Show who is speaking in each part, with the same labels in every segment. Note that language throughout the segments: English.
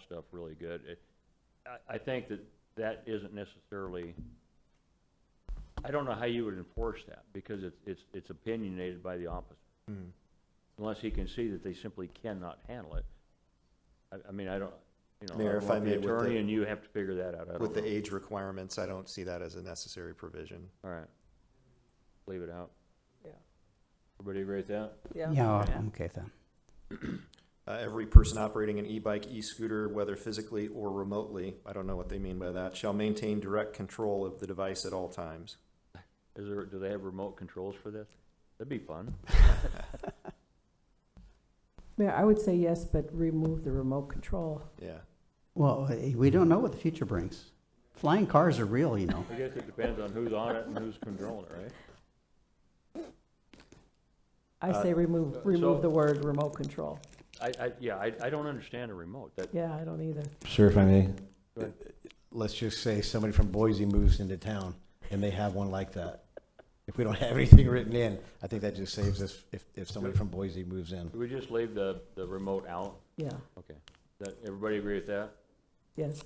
Speaker 1: stuff really good. It- I, I think that that isn't necessarily, I don't know how you would enforce that, because it's, it's, it's opinionated by the officer.
Speaker 2: Hmm.
Speaker 1: Unless he can see that they simply cannot handle it. I, I mean, I don't, you know. I
Speaker 2: Mayor,
Speaker 1: don't
Speaker 2: if
Speaker 1: know
Speaker 2: I may, with
Speaker 1: The attorney
Speaker 2: the-
Speaker 1: and you have to figure that out. I don't
Speaker 2: With the
Speaker 1: know.
Speaker 2: age requirements, I don't see that as a necessary provision.
Speaker 1: All right. Leave it out.
Speaker 3: Yeah.
Speaker 1: Everybody agree with that?
Speaker 3: Yeah,
Speaker 4: Yeah,
Speaker 3: Yeah.
Speaker 4: I'm okay with that.
Speaker 2: Uh, every person operating an e-bike, e-scooter, whether physically or remotely, I don't know what they mean by that, shall maintain direct control of the device at all times.
Speaker 1: Is there, do they have remote controls for this? That'd be fun.
Speaker 3: Mayor, I would say yes, but remove the remote control.
Speaker 2: Yeah.
Speaker 4: Well, eh, we don't know what the future brings. Flying cars are real, you know.
Speaker 1: I guess it depends on who's on it and who's controlling it, right?
Speaker 3: I
Speaker 2: Uh,
Speaker 3: say remove, remove the word remote control.
Speaker 1: I, I, yeah, I, I don't understand a remote, that,
Speaker 3: Yeah, I don't either.
Speaker 5: Sure, if I may.
Speaker 1: Go ahead.
Speaker 5: Let's just say somebody from Boise moves into town and they have one like that. If we don't have anything written in, I think that just saves us if, if somebody from Boise moves in.
Speaker 1: do we just leave the, the remote out?
Speaker 3: Yeah,
Speaker 1: Okay, that, everybody agree with that?
Speaker 3: yes.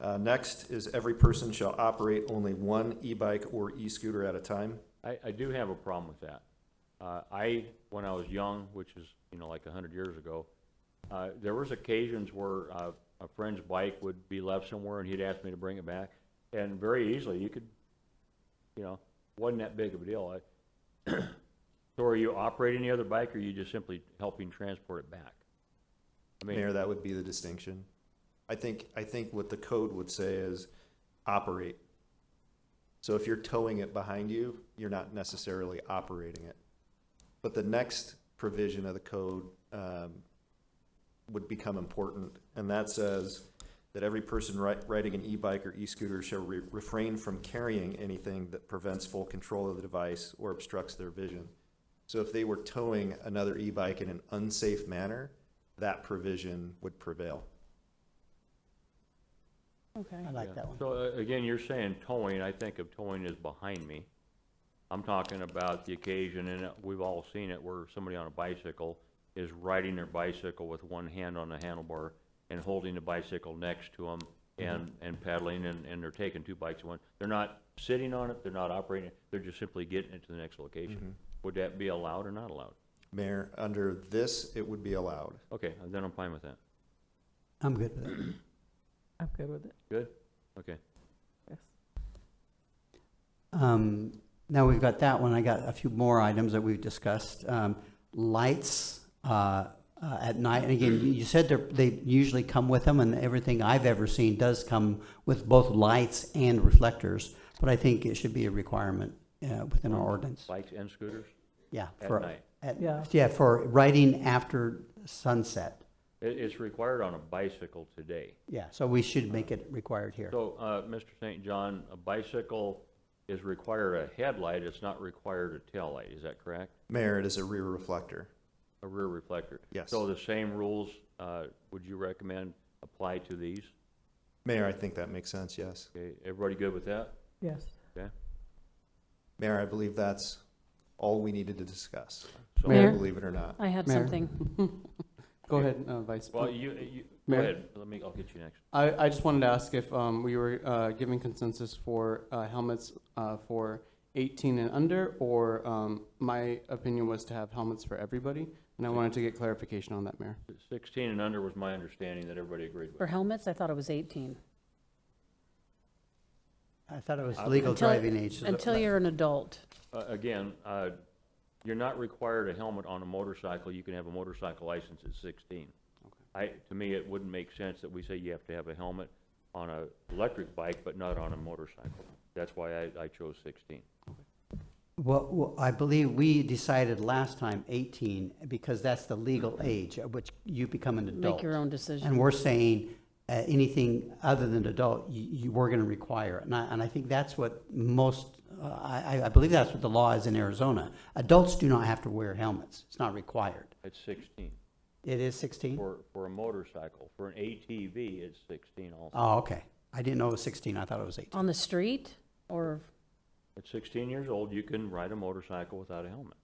Speaker 2: Uh, next is every person shall operate only one e-bike or e-scooter at a time.
Speaker 1: I, I do have a problem with that. Uh, I, when I was young, which is, you know, like a hundred years ago, uh, there was occasions where, uh, a friend's bike would be left somewhere and he'd ask me to bring it back. And very easily, you could, you know, wasn't that big of a deal. I, so are you operating the other bike or are you just simply helping transport it back? I mean,
Speaker 2: Mayor, that would be the distinction. I think, I think what the code would say is operate. So if you're towing it behind you, you're not necessarily operating it. But the next provision of the code um, would become important, and that says that every person ri- riding an e-bike or e-scooter shall re- refrain from carrying anything that prevents full control of the device or obstructs their vision. So if they were towing another e-bike in an unsafe manner, that provision would prevail.
Speaker 3: Okay.
Speaker 4: I like that one.
Speaker 1: So uh, again, you're saying towing, I think of towing as behind me. I'm talking about the occasion, and uh, we've all seen it, where somebody on a bicycle is riding their bicycle with one hand on the handlebar and holding the bicycle next to them
Speaker 4: Mm-hmm.
Speaker 1: and, and pedaling, and, and they're taking two bikes at once. They're not sitting on it, they're not operating it, they're just simply getting it to the next location.
Speaker 4: Mm-hmm.
Speaker 1: Would that be allowed or not allowed?
Speaker 2: Mayor, under this, it would be allowed.
Speaker 1: Okay, then I'm fine with that.
Speaker 4: I'm good with it.
Speaker 3: I'm good with it,
Speaker 1: Good? Okay.
Speaker 3: yes.
Speaker 4: Um, now we've got that one. I got a few more items that we've discussed. Um, lights, uh, uh, at night, and again, you- you said they're, they usually come with them, and everything I've ever seen does come with both lights and reflectors, but I think it should be a requirement, uh, within our ordinance.
Speaker 1: Bikes and scooters?
Speaker 4: Yeah.
Speaker 1: At
Speaker 4: for-
Speaker 1: night.
Speaker 4: at-
Speaker 3: Yeah.
Speaker 4: Yeah, for riding after sunset.
Speaker 1: It, it's required on a bicycle today.
Speaker 4: Yeah, so we should make it required here.
Speaker 1: So, uh, Mr. St. John, a bicycle is required a headlight, it's not required a taillight, is that correct?
Speaker 2: Mayor, it is a rear reflector.
Speaker 1: A rear reflector?
Speaker 2: Yes.
Speaker 1: So the same rules, uh, would you recommend apply to these?
Speaker 2: Mayor, I think that makes sense, yes.
Speaker 1: Okay, everybody good with that?
Speaker 3: Yes,
Speaker 1: Okay?
Speaker 2: Mayor, I believe that's all we needed to discuss,
Speaker 1: So-
Speaker 6: Mayor?
Speaker 2: believe it or not.
Speaker 6: I had
Speaker 7: Mayor.
Speaker 6: something.
Speaker 7: Go ahead, uh, Vice.
Speaker 1: Well, you, you, go
Speaker 7: Mayor?
Speaker 1: ahead, let me, I'll get you next.
Speaker 7: I, I just wanted to ask if um, we were uh, giving consensus for uh, helmets uh, for 18 and under, or um, my opinion was to have helmets for everybody, and I wanted to get clarification on that, Mayor.
Speaker 1: Sixteen and under was my understanding that everybody agreed
Speaker 6: For
Speaker 1: with.
Speaker 6: helmets, I thought it was 18.
Speaker 4: I thought it was legal
Speaker 6: Until-
Speaker 4: driving age. so
Speaker 6: Until
Speaker 4: that-
Speaker 6: you're an adult.
Speaker 1: Uh, again, uh, you're not required a helmet on a motorcycle, you can have a motorcycle license at sixteen. I, to me, it wouldn't make sense that we say you have to have a helmet on a electric bike, but not on a motorcycle. That's why I, I chose sixteen.
Speaker 4: Well, well, I believe we decided last time 18, because that's the legal age at which you become an adult.
Speaker 6: Make your own
Speaker 4: And
Speaker 6: decision.
Speaker 4: we're saying, uh, anything other than adult, you, you, we're gonna require. it. And I, and I think that's what most, uh, I, I- I believe that's what the law is in Arizona. Adults do not have to wear helmets. It's not required.
Speaker 1: It's sixteen
Speaker 4: It is 16?
Speaker 1: for, for a motorcycle. For an ATV, it's sixteen also.
Speaker 4: Oh, okay. I didn't know it was 16. I thought it was 18.
Speaker 6: On the street or,
Speaker 1: At sixteen years old, you can ride a motorcycle without a helmet.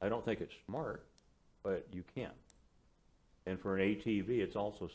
Speaker 1: I don't think it's smart, but you can. And for an ATV, it's also